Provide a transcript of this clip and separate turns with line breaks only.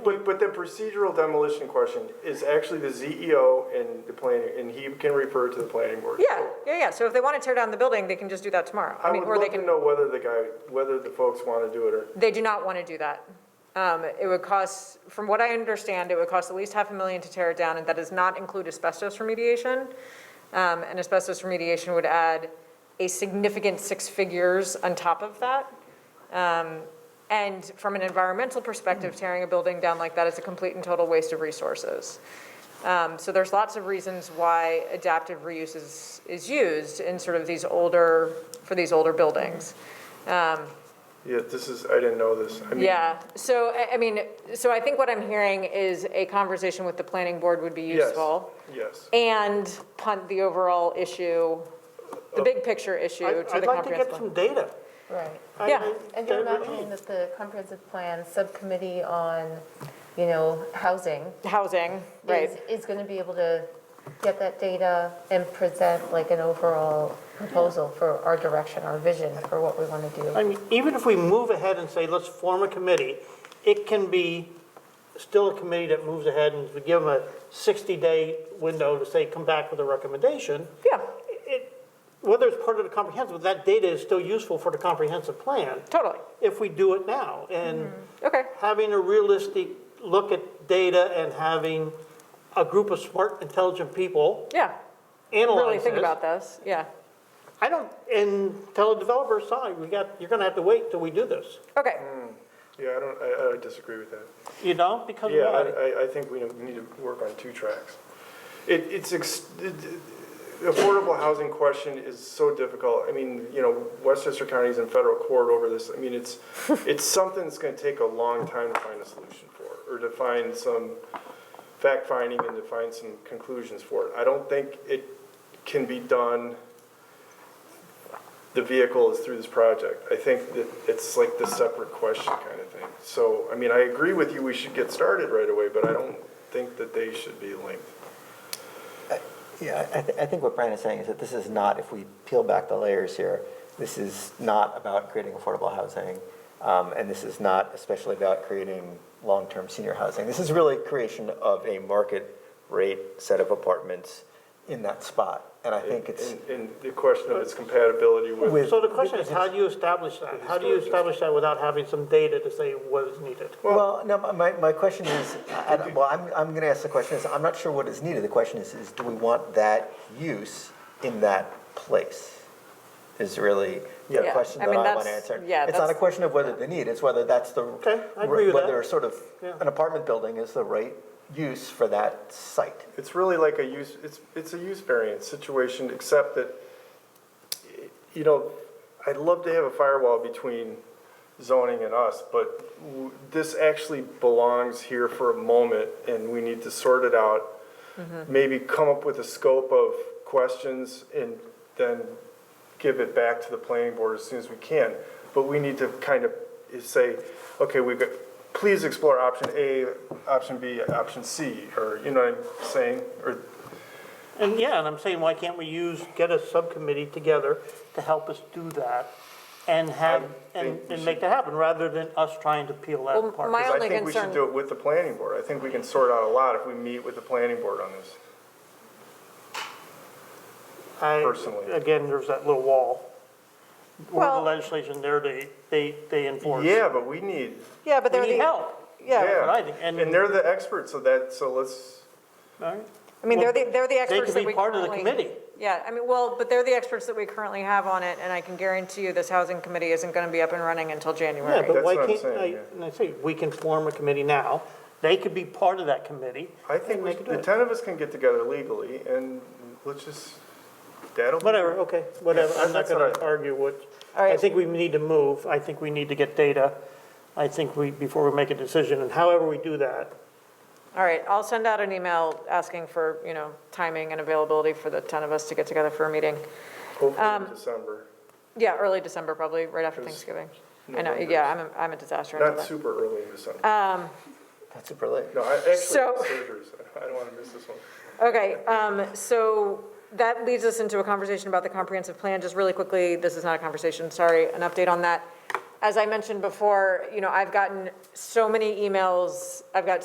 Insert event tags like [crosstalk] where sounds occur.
But, but the procedural demolition question is actually the ZEO and the planning, and he can refer to the planning board.
Yeah, yeah, yeah, so if they want to tear down the building, they can just do that tomorrow.
I
mean,
would
or they
love to
can.
know whether the guy, whether the folks want to do it or,
They do not want to do that. Um, It would cost, from what I understand, it would cost at least half a million to tear it down, and that does not include asbestos remediation. Um, And asbestos remediation would add a significant six figures on top of that. Um, And from an environmental perspective, tearing a building down like that is a complete and total waste of resources. Um, So there's lots of reasons why adaptive reuse is, is used in sort of these older, for these older buildings.
yeah, this is, I didn't know this. I mean,
Yeah, so, I, I mean, so I think what I'm hearing is a conversation with the planning board would be
Yes,
useful.
yes.
And punt the overall issue, the big picture issue to
I'd
the
I'd like to get
comprehensive plan.
some data.
Right.
I-
Yeah.
I-
And you're
that would
not
be-
saying that the comprehensive plan subcommittee on, you know, housing
Housing, right,
is, is going to be able to get that data and present like an overall proposal for our direction, our vision for what we want to do.
I mean, even if we move ahead and say, let's form a committee, it can be still a committee that moves ahead and we give them a 60-day window to say, come back with a recommendation.
yeah,
It- Whether it's part of the comprehensive, that data is still useful for the comprehensive plan
totally,
if we do it now. And
Mm-hmm.
okay,
having a realistic look at data and having a group of smart, intelligent people
yeah.
analyze
Really think
this,
about this, yeah,
I don't, and tell the developer, sorry, we got, you're gonna have to wait till we do this,
okay,
Mm.
Yeah, I don't, I, I disagree with that.
you know, because
Yeah,
why?
I, I- I think we need to work on two tracks. It, it's, ex- it- the affordable housing question is so difficult. I mean, you know, Westchester County's in federal court over this. I mean,
[laughs]
it's, it's something that's gonna take a long time to find a solution for, or to find some fact-finding and to find some conclusions for it. I don't think it can be done, the vehicle is through this project. I think that it's like the separate question kind of thing. So, I mean, I agree with you, we should get started right away, but I don't think that they should be linked.
Yeah, I, th- I think what Brian is saying is that this is not, if we peel back the layers here, this is not about creating affordable housing, um, and this is not especially about creating long-term senior housing. This is really creation of a market rate set of apartments in that spot, and I think it's.
And, and the question of its compatibility with,
With-
So the question is, how do you establish that? How do you establish that without having some data to say what is needed?
Well, no, my, my question is, I- I- well, I'm, I'm going to ask the question, is I'm not sure what is needed. The question is, is do we want that use in that place? Is really the
Yeah,
question
I
that I
mean,
want to
that's-
answer.
yeah,
It's not a
that's-
question of whether the need, it's whether that's the.
Okay, I agree with that.
Whether sort of,
Yeah.
an apartment building is the right use for that site.
it's really like a use, it's, it's a use variance situation, except that, you know, I'd love to have a firewall between zoning and us, but w- this actually belongs here for a moment, and we need to sort it out. Maybe come up with a scope of questions and then give it back to the planning board as soon as we can. But we need to kind of say, okay, we've got, please explore option A, option B, option C, or, you know what I'm saying? Or,
And yeah, and I'm saying, why can't we use, get a subcommittee together to help us do that and have,
I
and,
think we
and make that happen, rather than us trying to peel that
Well,
apart?
my-
because I
only
think we should
concern-
do it with the planning board. I think we can sort out a lot if we meet with the planning board on this.
I-
personally.
Again, there's that little wall. Where the
Well-
legislation there, they, they, they enforce.
Yeah, but we need,
yeah, but
We
they're
need
the,
help,
yeah,
what I
yeah,
think,
and
and-
they're the experts of that, so let's,
all right?
I mean, they're the, they're the
They
experts
could
that
be
we currently.
part of the committee.
Yeah, I mean, well, but they're the experts that we currently have on it, and I can guarantee you this housing committee isn't going to be up and running until January.
Yeah, but
That's
why
what I'm
can't,
saying,
I,
yeah.
and I say, we can form a committee now, they could be part of that committee.
I think
and
we
they could do
the
it.
ten of us can get together legally, and let's just, that'll be.
Whatever, okay, whatever, I'm not
That's
gonna
all right.
argue what,
All right.
I think we need to move, I think we need to get data, I think we, before we make a decision, and however we do that,
All right, I'll send out an email asking for, you know, timing and availability for the 10 of us to get together for a meeting. Um,
Hopefully in December,
Yeah, early December, probably, right after Thanksgiving. I know, yeah, I'm, a- I'm a disaster. I know
not
that.
super early in December.
That's super late.
No, I actually,
so-
surgeries, I don't wanna miss this one.
Okay, um, so that leads us into a conversation about the comprehensive plan. Just really quickly, this is not a conversation, sorry, an update on that. as I mentioned before, you know, I've gotten so many emails, I've got